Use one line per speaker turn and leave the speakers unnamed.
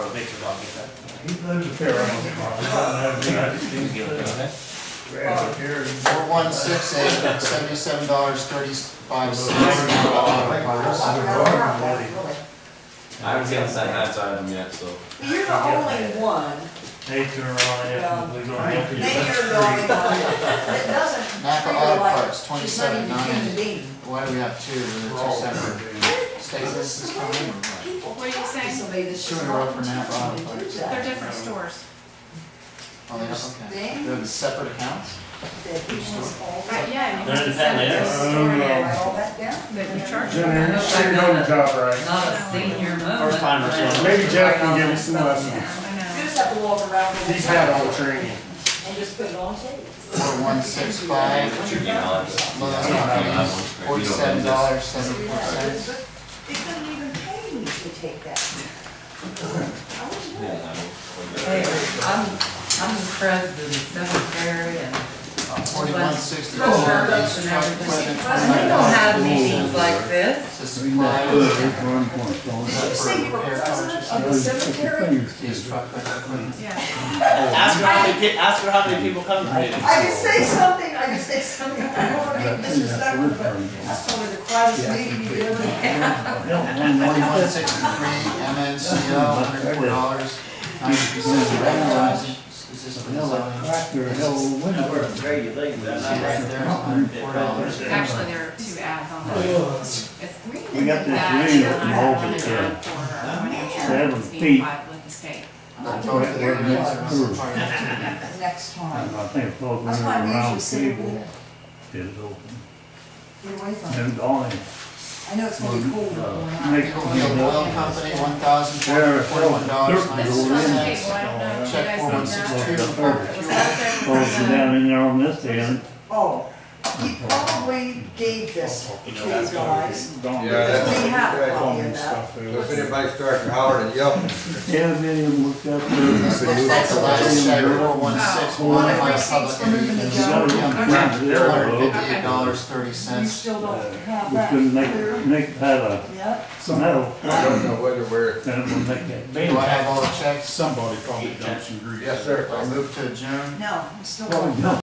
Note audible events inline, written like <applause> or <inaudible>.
pictures, I'll get that.
He lives here around the corner.
Please give it to me.
Around here.
Four one six eight, seventy-seven dollars, thirty-five
Well,
cents.
I haven't seen the sentence item yet, so.
You're the only one,
Eight in a row, yeah, we gonna have to.
maybe you're the only one, that doesn't.
Napa
treat her
Auto
like
Parts,
she's not even
27.90.
human being.
Why do we have two,
We're
they're two
all-
separate? Stacy, this is coming in, right?
People
What are you saying?
Somebody that's
Two
just
in a row
not
for Napa Auto
intentionally do
Parts.
They're
that,
different stores.
Oh, they are, okay. They're the separate accounts?
that he wants all
Right,
that.
yeah, and you
They're
have to send it to the
independent, yeah.
store and
Write all that down.
that you charge.
Jenny, you sure know the job right.
Not a senior moment.
First time or something.
Maybe Jeff can give you some lessons.
I
You
know.
just have to walk around with
He's
it
had all the training.
and just put it on tape.
Four one six five,
What's your email address?
Lowe's
I don't have that
Companies,
one. Or you don't have
forty-seven
this.
dollars,
See
seventy-four
that?
cents.
But They couldn't even pay me to take that. I wouldn't do
Yeah,
it.
I will.
Hey, I'm, I'm impressed with the cemetery and.
Forty-one sixty-four,
Russ,
truck
Russ, and everything.
equipment,
Russ, we don't
twenty-nine
have meetings like this.
dollars. To supplies,
Did you say you were
Repair
president of the cemetery?
these truck equipment.
Yeah.
Ask her how many, pe- ask her how many people come to meetings.
I could say something, I could say something, I don't want to be disrespectful, but that's probably the quietest meeting you've <laughs> ever had.
Forty-one sixty-three, MNCO, hundred four dollars, ninety-two cents for advertising. Is this for the zoning? See right there, hundred four dollars.
Actually, there are two ads on there. It's
We got this
that,
ring
and
that
I
involved
have
it,
one
uh, seven
ad for our financial records being
feet.
filed with the state.
I told you there was a part of it.
Next time.
I think both
That's
of them
why I usually
around
say,
the
well,
table is open.
get away from it.
And Donnie,
I know it's gonna be cold. but we're not.
make
Oakdale Oil Company, one thousand four hundred forty-one dollars,
This
ninety-six
is from the
cents.
table, I don't know if you
Check
guys
four one six two, for
know that.
both
Was that there was
are down in there on this end.
Oh, he probably gave this to these guys.
Donnie.
Yeah, that's-
We have a
All
copy of
the
that.
stuff there.
If anybody starts hollering and yelling,
Yeah, William looked up there.
That's the last check, four one six one, my public
We got it on Friday,
Two
there,
hundred
bro.
fifty-eight dollars, thirty
You
cents.
still don't have
We
that
couldn't
clear.
make, make that
Yep,
a metal,
I don't know whether we're,
then it would make that big.
Do I have all the checks?
Somebody probably dumped some grease.
yes, sir.
I move to adjourn.
no, I'm still.
Well,
don't.
Oh, no.